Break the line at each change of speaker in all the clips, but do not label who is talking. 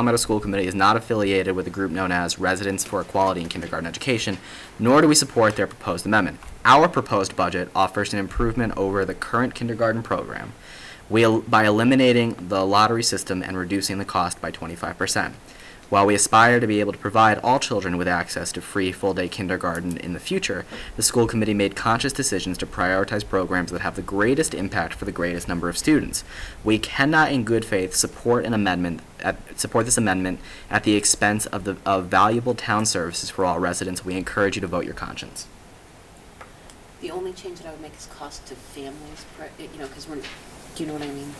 Palmetto School Committee is not affiliated with a group known as Residents for Equality in Kindergarten Education, nor do we support their proposed amendment. Our proposed budget offers an improvement over the current kindergarten program we, el- by eliminating the lottery system and reducing the cost by 25%. While we aspire to be able to provide all children with access to free full-day kindergarten in the future, the school committee made conscious decisions to prioritize programs that have the greatest impact for the greatest number of students. We cannot in good faith support an amendment at, support this amendment at the expense of the of valuable town services for all residents. We encourage you to vote your conscience.
The only change that I would make is cost to families, per- you know, because we're, do you know what I mean?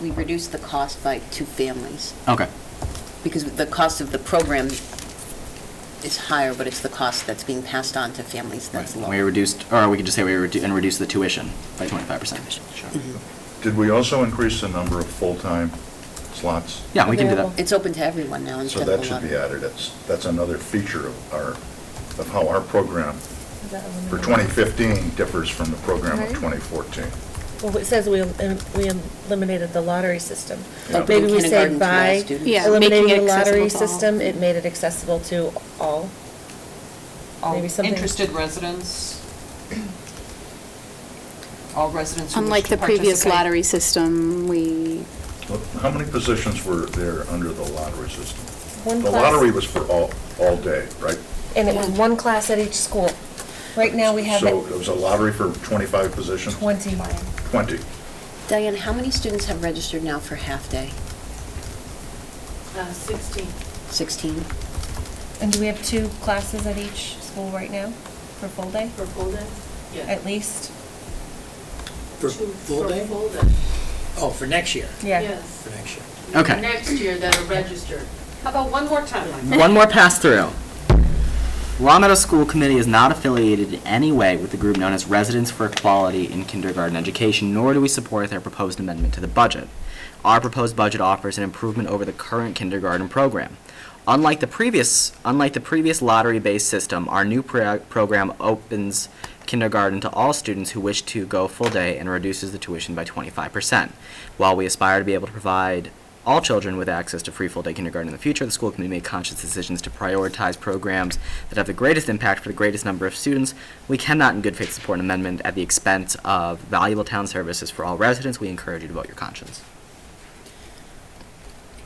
We reduce the cost by two families,
Okay.
because the cost of the program is higher, but it's the cost that's being passed on to families that's lower.
We reduced, or we could just say we redu- and reduce the tuition by twenty five percent.
Mm-hmm.
Did we also increase the number of full-time slots?
Yeah, we can do that.
It's open to everyone now
So
instead of a
that
lot.
should be added. That's, that's another feature of our, of how our program for 2015 differs from the program of
Right.
2014.
Well, it says we, elim- we we eliminated the lottery system.
Yeah.
Maybe we say
Kindergarten to all
by
students.
Yeah, making
eliminating
it
the lottery
accessible to all.
system, it made it accessible to all.
All
Maybe something-
interested residents, all residents who wish
Unlike
to
the previous
participate.
lottery system, we,
Look, How many positions were there under the lottery system?
One
The
class.
lottery was for all, all day, right?
And it was one class at each school. Right now, we have
So
it
it was a lottery for 25 positions?
20.
20.
Diane, how many students have registered now for half-day?
Uh, 16.
16?
And do we have two classes at each school right now for full day,
For full day?
at least?
For
Two
full day?
For full day.
Oh, for next year,
Yeah.
Yes.
for next year.
Okay.
Next year that are registered. How about one more time, Mike?
One more pass through. Long Meadow School Committee is not affiliated in any way with the group known as Residents for Equality in Kindergarten Education, nor do we support their proposed amendment to the budget. Our proposed budget offers an improvement over the current kindergarten program. Unlike the previous, unlike the previous lottery-based system, our new pro- program opens kindergarten to all students who wish to go full day and reduces the tuition by 25%. While we aspire to be able to provide all children with access to free full-day kindergarten in the future, the school committee made conscious decisions to prioritize programs that have the greatest impact for the greatest number of students. We cannot in good faith support an amendment at the expense of valuable town services for all residents. We encourage you to vote your conscience.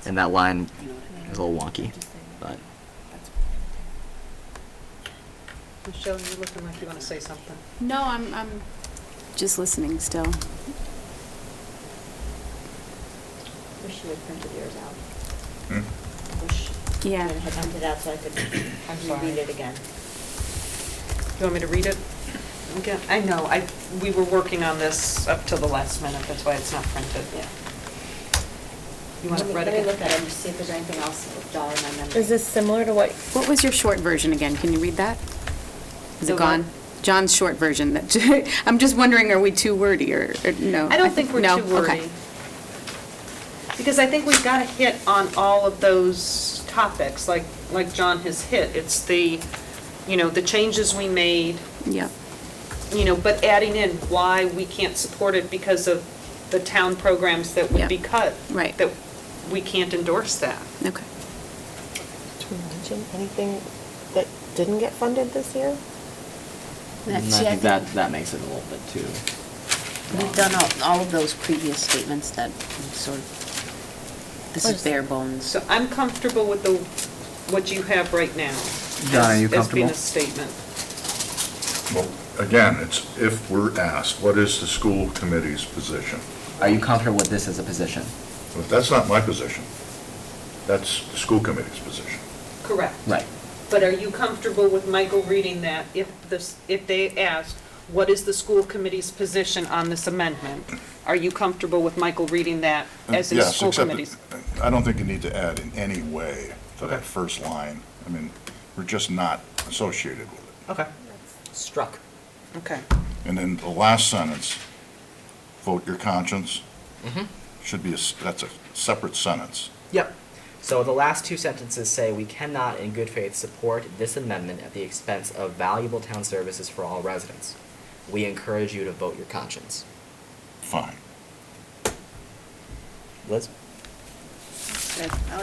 And that line
You know what I mean?
is a little wonky, but
Michelle, you're looking like you want to say something.
no, I'm, I'm just listening still.
Wish you had printed yours out.
Hmm?
Wish you
Yeah.
had printed out so I could
I'm sorry.
reread it again.
Do you want me to read it? Again, I know, I, we were working on this up till the last minute, that's why it's not printed.
Yeah.
You want it
Let me-
read
Let
again?
me look at it and just see if there's anything else with dollar in my memory.
Is this similar to what,
What was your short version again? Can you read that? Is it
The what?
gone? John's short version, that, I'm just wondering, are we too wordy or, or no?
I don't think we're
no?
too wordy.
Okay.
Because I think we've got to hit on all of those topics, like, like John has hit. It's the, you know, the changes we made,
Yeah,
you know, but adding in why we can't support it because of the town programs that would
Yeah.
be cut.
Right.
That we can't endorse that.
okay.
Can you imagine anything that didn't get funded this year?
and I
That's- see, I
think
think-
that, that makes it a little bit too.
We've done all, all of those previous statements that sort of, this is bare bones.
So I'm comfortable with the, what you have right now.
Donna, are
as-
you comfortable?
As being a statement.
Well, again, it's if we're asked, what is the school committee's position?
Are you comfortable with this as a position?
But that's not my position. That's the school committee's position.
Correct.
Right.
But are you comfortable with Michael reading that if this, if they asked, what is the school committee's position on this amendment? Are you comfortable with Michael reading that as a
Yes,
school
except
committee's?
that- I don't think you need to add in any way to that first line. I mean, we're just not associated with it.
Okay,
Struck.
okay.
And then the last sentence, vote your conscience,
Mm-hmm.
should be, a s- that's a separate sentence.
Yep. So the last two sentences say we cannot, in good faith, support this amendment at the expense of valuable town services for all residents. We encourage you to vote your conscience.
Fine.
Liz?
Good. I